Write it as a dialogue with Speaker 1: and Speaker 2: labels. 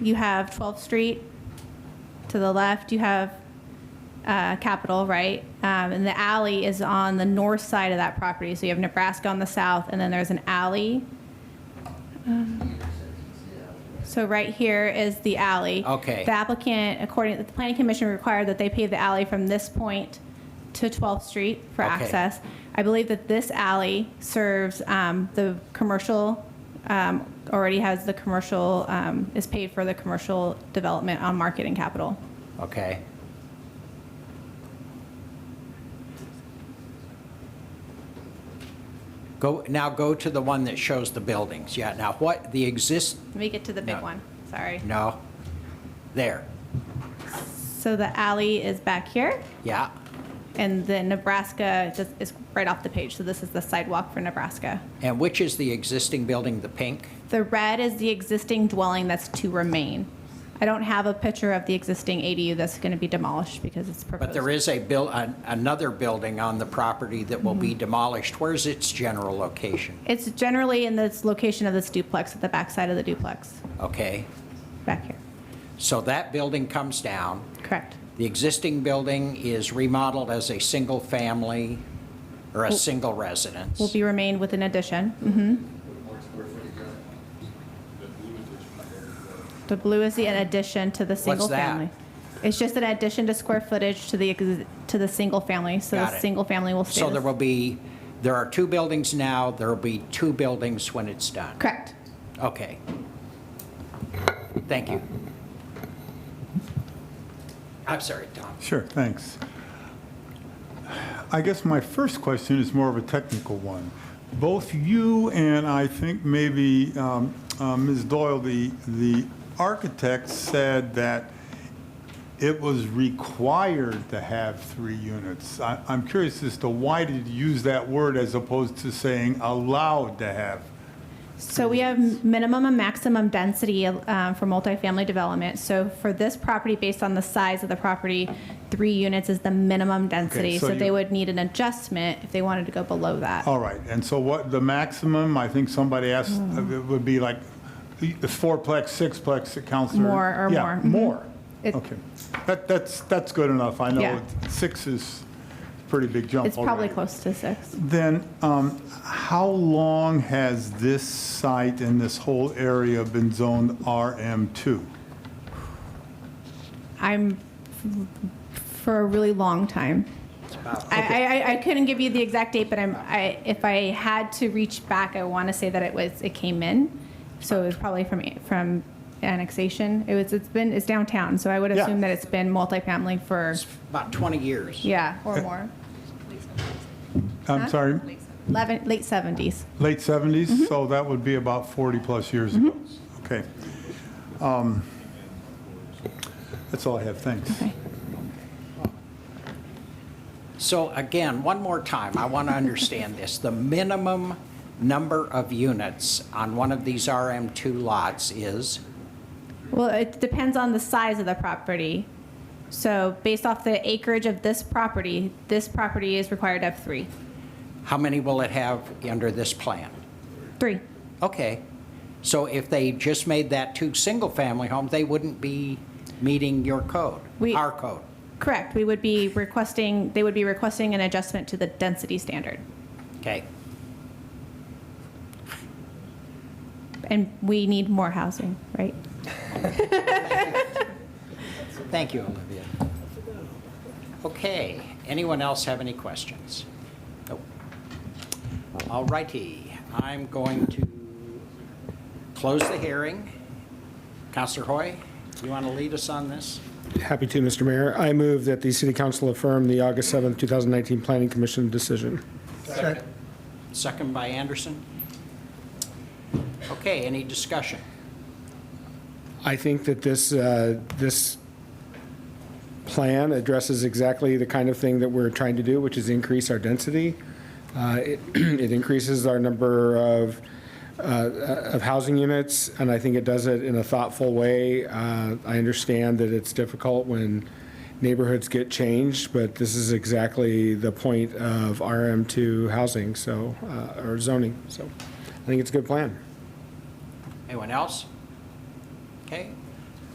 Speaker 1: you have 12th Street to the left, you have uh, Capitol, right? Um, and the alley is on the north side of that property. So you have Nebraska on the south, and then there's an alley. Um, So right here is the alley.
Speaker 2: Okay.
Speaker 1: The applicant, according to the planning commission, required that they pave the alley from this point to 12th Street for
Speaker 2: Okay.
Speaker 1: access. I believe that this alley serves um, the commercial, um, already has the commercial, um, is paid for the commercial development on Market and Capitol.
Speaker 2: Okay. Go, now go to the one that shows the buildings. Yeah, now what, the exist,
Speaker 1: Let me get to the big
Speaker 2: No.
Speaker 1: one, sorry.
Speaker 2: no. There,
Speaker 1: So the alley is back here,
Speaker 2: yeah,
Speaker 1: and the Nebraska just is right off the page. So this is the sidewalk for Nebraska.
Speaker 2: and which is the existing building, the pink?
Speaker 1: The red is the existing dwelling that's to remain. I don't have a picture of the existing ADU that's going to be demolished because it's proposed.
Speaker 2: But there is a buil, an- another building on the property that will be demolished. Where's its general location?
Speaker 1: It's generally in this location of this duplex, at the backside of the duplex,
Speaker 2: Okay,
Speaker 1: back here.
Speaker 2: so that building comes down.
Speaker 1: Correct.
Speaker 2: The existing building is remodeled as a single-family or a single residence.
Speaker 1: Will be remained with an addition. hmm The blue is the an addition to the single
Speaker 2: that?
Speaker 1: family. It's just an addition to square footage to the, exi- to the single family, so
Speaker 2: Got
Speaker 1: the
Speaker 2: it.
Speaker 1: single family will stay.
Speaker 2: So
Speaker 1: the-
Speaker 2: there will be, there are two buildings now, there will be two buildings when it's done.
Speaker 1: Correct.
Speaker 2: Okay. Thank you. I'm sorry, Tom.
Speaker 3: Sure, thanks. I guess my first question is more of a technical one. Both you and I think maybe um, uh, Ms. Doyle, the, the architect said that it was required to have three units. I- I'm curious as to why did you use that word as opposed to saying allowed to have?
Speaker 1: So we have minimum and maximum density um, for multifamily development. So for this property, based on the size of the property, three units is the minimum density.
Speaker 3: so
Speaker 1: So they
Speaker 3: you- Oh,
Speaker 1: would need an adjustment if they wanted to go below that.
Speaker 3: All right, and so what, the maximum, I think somebody asked, uh,
Speaker 1: Hmm.
Speaker 3: it would be like the fourplex, sixplex, Counselor?
Speaker 1: More or more,
Speaker 3: Yeah,
Speaker 1: mhm.
Speaker 3: more.
Speaker 1: It-
Speaker 3: Okay. That, that's, that's good enough. I
Speaker 1: Yeah.
Speaker 3: know six is a pretty big jump
Speaker 1: It's probably
Speaker 3: already.
Speaker 1: close to six.
Speaker 3: Then, um, how long has this site and this whole area been zoned RM2?
Speaker 1: I'm for a really long time. I, I, I couldn't give you the exact date, but I'm, I, if I had to reach back, I want to say that it was, it came in. So it was probably from, from annexation. It was, it's been, it's downtown, so I would
Speaker 3: Yeah.
Speaker 1: assume that it's been multifamily for,
Speaker 2: It's about 20 years.
Speaker 1: yeah, or more.
Speaker 3: I'm sorry,
Speaker 1: Eleven, late seventies.
Speaker 3: late 70s? So that would be about 40-plus years ago. Okay. Um, That's all I have, thanks.
Speaker 1: Okay.
Speaker 2: So again, one more time, I want to understand this. The minimum number of units on one of these RM2 lots is,
Speaker 1: Well, it depends on the size of the property. So based off the acreage of this property, this property is required to have three,
Speaker 2: how many will it have under this plan?
Speaker 1: three.
Speaker 2: Okay. So if they just made that two single-family homes, they wouldn't be meeting your code,
Speaker 1: We-
Speaker 2: our code.
Speaker 1: Correct. We would be requesting, they would be requesting an adjustment to the density standard.
Speaker 2: Okay.
Speaker 1: And we need more housing, right?
Speaker 2: Thank you, Olivia. Okay, anyone else have any questions? Nope. All righty, I'm going to close the hearing. Counselor Hoy, you want to lead us on this?
Speaker 4: Happy to, Mr. Mayor. I move that the City Council affirm the August seventh, two 2019 Planning Commission decision.
Speaker 2: Second by Anderson. Okay, any discussion?
Speaker 4: I think that this, uh, this plan addresses exactly the kind of thing that we're trying to do, which is increase our density. Uh, It it increases our number of, uh, of housing units, and I think it does it in a thoughtful way. Uh, I understand that it's difficult when neighborhoods get changed, but this is exactly the point of RM2 housing, so, uh, or zoning, so I think it's a good plan.
Speaker 2: Anyone else? Okay,